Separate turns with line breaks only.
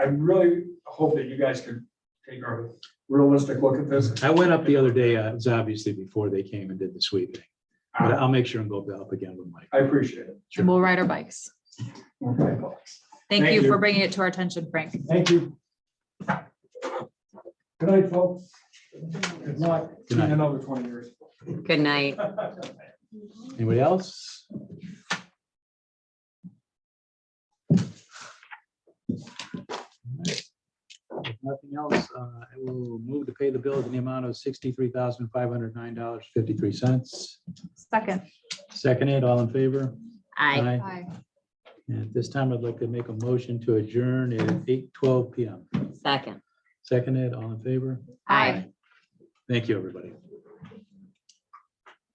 I really hope that you guys could take a realistic look at this.
I went up the other day, uh, it was obviously before they came and did the sweeping, but I'll make sure and go up again with Mike.
I appreciate it.
Sure.
and we'll ride our bikes.
Okay. Thank
Thank you
you.
for bringing it to our attention, Frank.
Thank you. Good night, folks. Good luck
Good
in
night.
another twenty years.
Good night.
Anybody else? If Nothing else, uh, I will move to pay the bills in the amount of sixty-three thousand five hundred nine dollars fifty-three cents.
Second.
Seconded, all in favor?
I
Aye.
And at this time, I'd like to make a motion to adjourn at eight twelve PM.
second.
Seconded, all in favor?
Aye.
Thank you, everybody.